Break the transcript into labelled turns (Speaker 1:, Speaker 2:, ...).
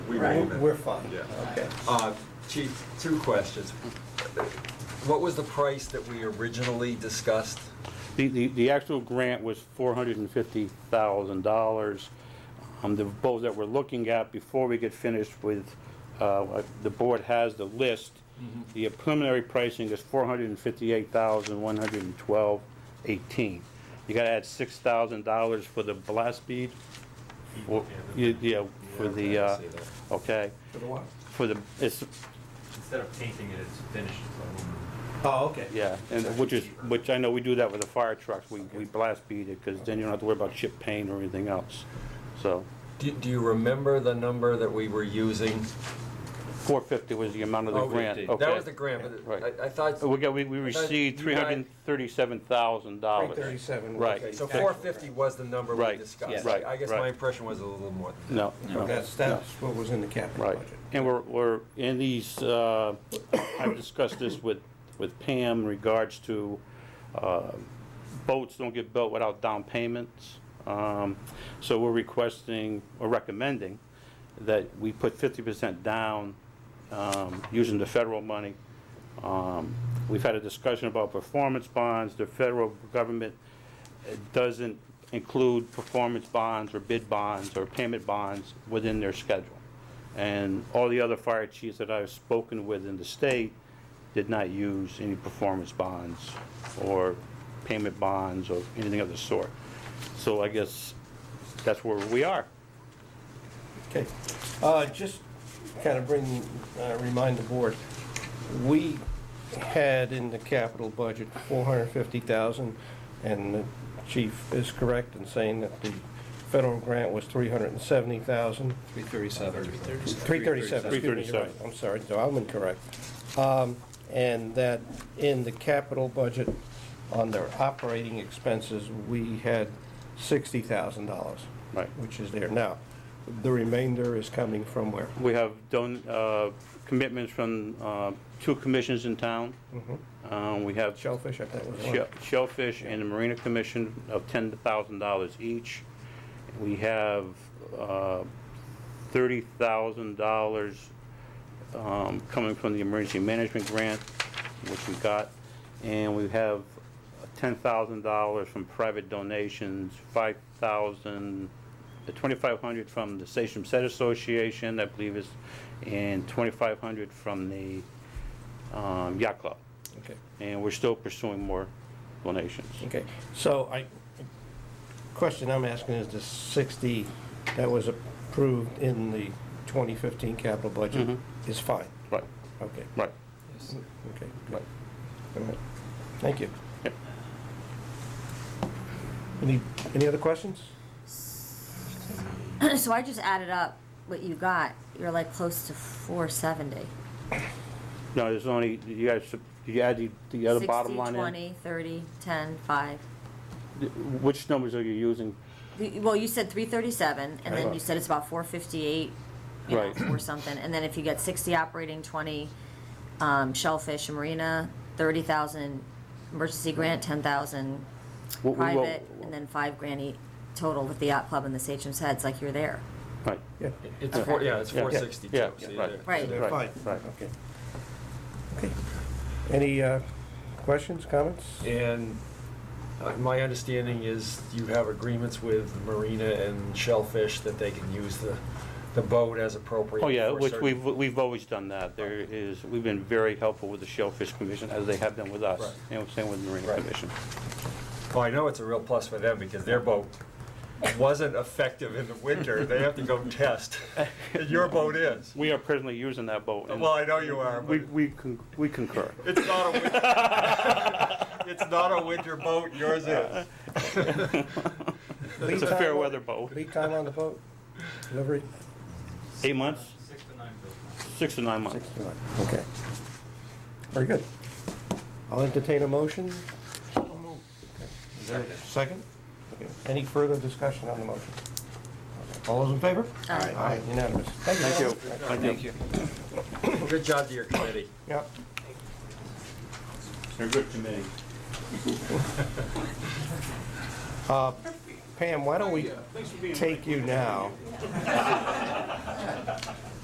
Speaker 1: Right.
Speaker 2: We're- We're fine.
Speaker 3: Yeah.
Speaker 2: Okay.
Speaker 3: Uh, Chief, two questions. What was the price that we originally discussed?
Speaker 4: The, the, the actual grant was four hundred and fifty thousand dollars. Um, the proposal that we're looking at, before we get finished with, uh, what the board has the list.
Speaker 3: Mm-hmm.
Speaker 4: The preliminary pricing is four hundred and fifty-eight thousand, one hundred and twelve, eighteen. You gotta add six thousand dollars for the blast bead. Or- you- Yeah, for the,
Speaker 3: Yeah, I
Speaker 4: uh,
Speaker 3: see that.
Speaker 4: okay,
Speaker 2: For the what?
Speaker 4: for the, it's,
Speaker 5: Instead of painting it, it's finished. it's aluminum.
Speaker 2: Oh, okay.
Speaker 4: Yeah, and which is, which I know we do that with the fire trucks, we, we blast beat it, because then you don't have to worry about chip paint or anything else. So,
Speaker 3: Do do you remember the number that we were using?
Speaker 4: four fifty was the amount of the
Speaker 3: Oh,
Speaker 4: grant,
Speaker 3: That
Speaker 4: okay.
Speaker 3: was the grant, but
Speaker 4: Right. Uh,
Speaker 3: I- I thought,
Speaker 4: We got, we, we
Speaker 3: I thought
Speaker 4: received
Speaker 3: you
Speaker 4: three hundred
Speaker 3: guys-
Speaker 4: and thirty-seven thousand dollars.
Speaker 2: 337.
Speaker 4: Right.
Speaker 2: Okay.
Speaker 3: so 450 was the number we
Speaker 4: Right,
Speaker 3: discussed.
Speaker 4: yes.
Speaker 3: I I guess
Speaker 4: right,
Speaker 3: my
Speaker 4: right.
Speaker 3: impression was a little more than that.
Speaker 4: No, no.
Speaker 2: That's, that's what was in the capital
Speaker 4: Right,
Speaker 2: budget.
Speaker 4: and we're, we're in these, uh, I've discussed this with, with Pam in regards to, uh, boats don't get built without down payments. Um, so we're requesting, or recommending, that we put fifty percent down, um, using the federal money. Um, we've had a discussion about performance bonds, the federal government it doesn't include performance bonds or bid bonds or payment bonds within their schedule. And all the other fire chiefs that I've spoken with in the state did not use any performance bonds or payment bonds or anything of the sort. So I guess that's where we are.
Speaker 2: Okay. Uh, Just kind of bring, uh, remind the board, we had in the capital budget 450,000, and the chief is correct in saying that the federal grant was 370,000.
Speaker 6: 337.
Speaker 2: 337, excuse me, you're right.
Speaker 4: 337.
Speaker 2: I'm sorry, so I'm incorrect. Um, And that in the capital budget, on their operating expenses, we had $60,000.
Speaker 4: Right.
Speaker 2: Which is there. Now, the remainder is coming from where?
Speaker 4: We have done uh, commitments from uh, two commissions in town. Uh, We have
Speaker 2: Shellfish, I thought was one.
Speaker 4: Shell- Shellfish and the Marina Commission of ten thousand dollars each. We have, uh, thirty thousand dollars, um, coming from the emergency management grant, which we got. And we have ten thousand dollars from private donations, five thousand, twenty-five hundred from the Station Set Association, I believe is, and twenty-five hundred from the, um, yacht club
Speaker 2: Okay.
Speaker 4: and we're still pursuing more donations.
Speaker 2: Okay, so I, question I'm asking is the 60 that was approved in the 2015 capital budget is fine?
Speaker 4: Right,
Speaker 2: Okay,
Speaker 4: right.
Speaker 2: okay, good. All right. Thank you.
Speaker 4: Yep.
Speaker 2: Any, any other questions?
Speaker 1: So I just added up what you got. You're like close to four seventy.
Speaker 4: No, there's only, you guys, you add the, the other bottom line in?
Speaker 1: 20, 30, 10, 5.
Speaker 4: Which numbers are you using?
Speaker 1: The- Well, you said 337, and then
Speaker 2: Right.
Speaker 1: you said it's about 458, you know,
Speaker 4: Right.
Speaker 1: or something. And then if you get 60 operating, 20 um, shellfish and marina, 30,000 emergency grant, 10,000
Speaker 4: What we will-
Speaker 1: private, and then 5 grand each total with the yacht club and the Sachem's Heads, like you're there.
Speaker 4: Right,
Speaker 2: Yeah.
Speaker 3: It's four, yeah, it's
Speaker 4: Yeah.
Speaker 3: 462.
Speaker 4: Yeah.
Speaker 3: See,
Speaker 4: Right.
Speaker 3: there-
Speaker 1: Right.
Speaker 2: They're fine.
Speaker 4: Right, right.
Speaker 2: Okay. Okay. Any uh, questions, comments?
Speaker 3: And uh, my understanding is you have agreements with Marina and Shellfish that they can use the, the boat as appropriate.
Speaker 4: oh yeah,
Speaker 3: for
Speaker 4: which
Speaker 3: certain-
Speaker 4: we've, we've always done that. There is, we've been very helpful with the Shellfish Commission, as they have been with us,
Speaker 3: Right.
Speaker 4: and same with the Marina
Speaker 3: Right.
Speaker 4: Commission.
Speaker 3: Well, I know it's a real plus for them because their boat wasn't effective in the winter. They have to go test. And Your boat is.
Speaker 4: We are presently using that boat, and
Speaker 3: Well, I know you are,
Speaker 4: we,
Speaker 3: but
Speaker 4: we con- we concur.
Speaker 3: it's not a winter, it's not a winter boat. Yours is.
Speaker 4: It's a fair weather boat.
Speaker 2: Lead time on the boat? Delivery?
Speaker 4: Eight months? Six to nine months.
Speaker 2: Six to nine. Okay. Very good. I'll entertain a motion. Is there a second? Okay. Any further discussion on the motion? All those in favor?
Speaker 1: Aye.
Speaker 2: Unanimous.
Speaker 4: Thank you.
Speaker 6: Thank you.
Speaker 3: Good job to your committee.
Speaker 2: Yep.
Speaker 4: They're good committee.
Speaker 2: Pam, why don't we take you now?